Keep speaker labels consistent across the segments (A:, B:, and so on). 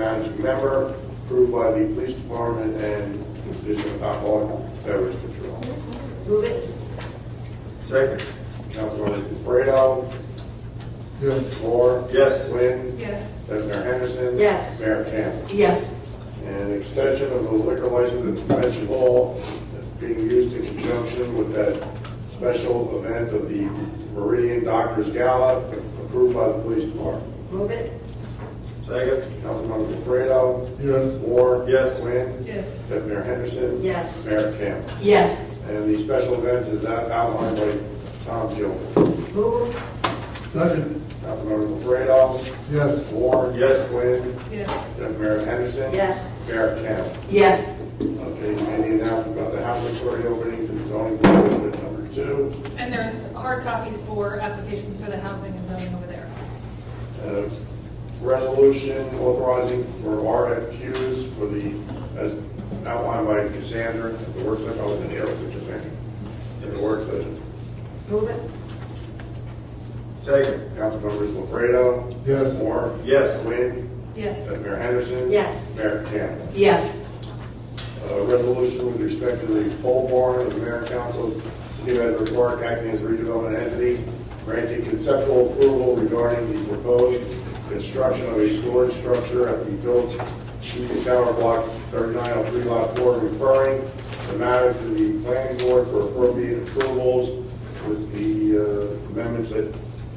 A: managing member, approved by the police department and Division of Alcohol and Beverage Control.
B: Move it.
C: Second.
A: Councilmembers Fredo,
C: Yes.
A: Moore.
C: Yes.
A: Quinn.
D: yes,
A: Senator Henderson.
B: Yes.
A: Mayor Campbell.
B: Yes.
A: And extension of the liquor license at Convention Hall that's being used in conjunction with that special event of the Meridian Doctors Gala approved by the police department.
B: Move it.
C: Second.
A: Councilmembers Fredo,
C: Yes.
A: Moore.
C: Yes.
A: Quinn.
D: yes,
A: Senator Henderson.
B: Yes.
A: Mayor Campbell.
B: Yes.
A: And the special events is out- outlined by Tom Gilman.
B: Move it.
C: Second.
A: Councilmembers Fredo,
C: Yes.
A: Moore.
C: Yes.
A: Quinn.
D: yes,
A: Deputy Mayor Henderson.
B: Yes.
A: Mayor Campbell.
B: Yes.
A: Okay, any announcement about the housing authority openings and zoning board ordinance number two?
D: and there's hard copies for applications for the housing and zoning over there.
A: Uh, Resolution authorizing for RFQs for the, as outlined by Cassandra, at the work session, I was in the office of oh, Cassandra. At the work session,
B: Move it.
C: Second.
A: Councilmembers LaFredo.
C: Yes.
A: Moore.
C: Yes.
A: Quinn.
D: Yes,
A: Deputy Mayor Henderson.
B: Yes.
A: Mayor Campbell.
B: Yes.
A: Uh, resolution with respect to the pole barn of the mayor and council, of the city of Edward Park acting as redevelopment entity, granting conceptual approval regarding the proposed construction of a storage structure at the village Union Tower Block 3903 Lot 4, referring the matter to the planning board for appropriate approvals with the uh, amendments that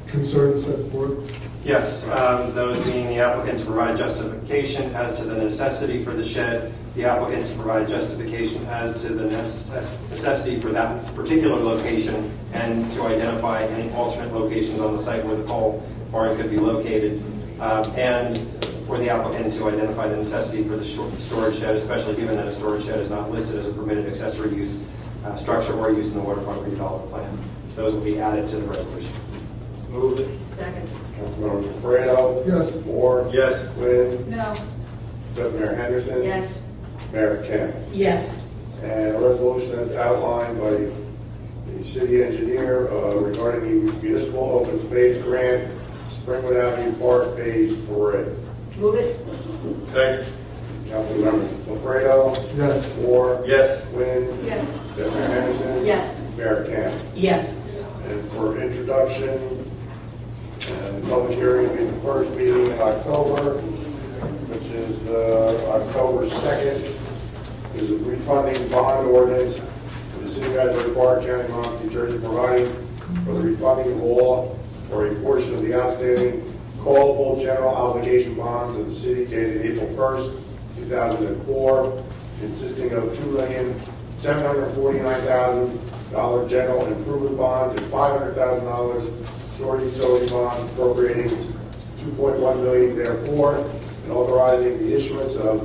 C: Concerns set forth?
E: Yes, um, those being the applicants provide justification as to the necessity for the shed, the applicants provide justification as to the necess- necessity for that particular location, and to identify any alternate locations on the site where the pole barn could be located, um, and for the applicant to identify the necessity for the stor- storage shed, especially given that a storage shed is not listed as a permitted accessory use, uh, structure or use in the waterfront redevelopment plan. Those will be added to the resolution.
C: Move it.
B: Second.
A: Councilmember Fredo.
C: Yes.
A: Moore.
C: Yes.
A: Quinn.
D: no,
A: Deputy Mayor Henderson.
B: Yes.
A: Mayor Campbell.
B: Yes.
A: and a resolution as outlined by the city engineer uh, regarding the municipal open space grant, Springwood Avenue Park Phase Three.
B: Move it.
C: Second.
A: Councilmembers Lefredo,
C: Yes.
A: Moore,
C: Yes.
A: Quinn,
D: yes,
A: Deputy Mayor Henderson.
B: Yes.
A: Mayor Campbell.
B: Yes.
A: And for introduction, and public hearing will be the first meeting in October, which is uh, October 2nd, is a refunding bond ordinance for the city of Asbury Park, County of Monmouth, New Jersey, providing for the refunding of all or a portion of the outstanding callable general obligation bonds of the city dated April 1st, 2004, consisting of $2,749,000 general improvement bonds and $500,000 short utility bonds appropriating 2.1 million therefore, and authorizing the issuance of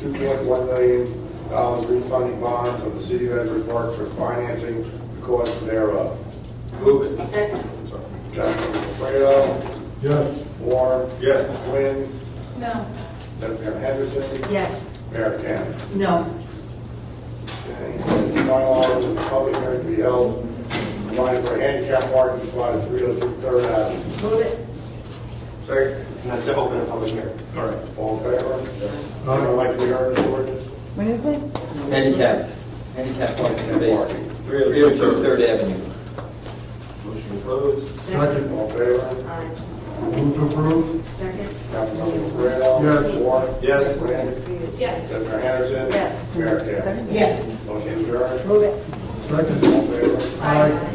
A: 2.1 million dollars refunding bonds of the city of Edward Park for financing the cost thereof.
C: Move it.
B: Second.
A: Councilmember Fredo,
C: Yes.
A: Moore,
C: Yes.
A: Quinn,
D: no,
A: Deputy Mayor Henderson,
B: Yes.
A: Mayor Campbell.
B: No.
A: Okay, Final order is the public hearing to be held, providing for handicap parking spot at 302 Third Avenue.
B: Move it.
C: Second.
E: And that's to open a public hearing.
A: All right. All in favor? Anyone like to be heard in the ordinance?
F: When is it?
G: Handicapped, handicapped parking space,
C: Three oh two
G: 302 Third Avenue.
C: Motion closed.
F: Second.
A: All in favor?
B: Aye.
F: Move to approve?
B: Second.
A: Councilmember Fredo.
F: Yes.
A: Moore.
C: Yes.
A: Quinn.
D: yes,
A: Senator Henderson?
B: Yes.
A: Mayor Campbell?
F: Yes.
B: Yes.
A: Motion adjourned.
B: Move it.
F: Second.
A: All in favor?
F: Aye.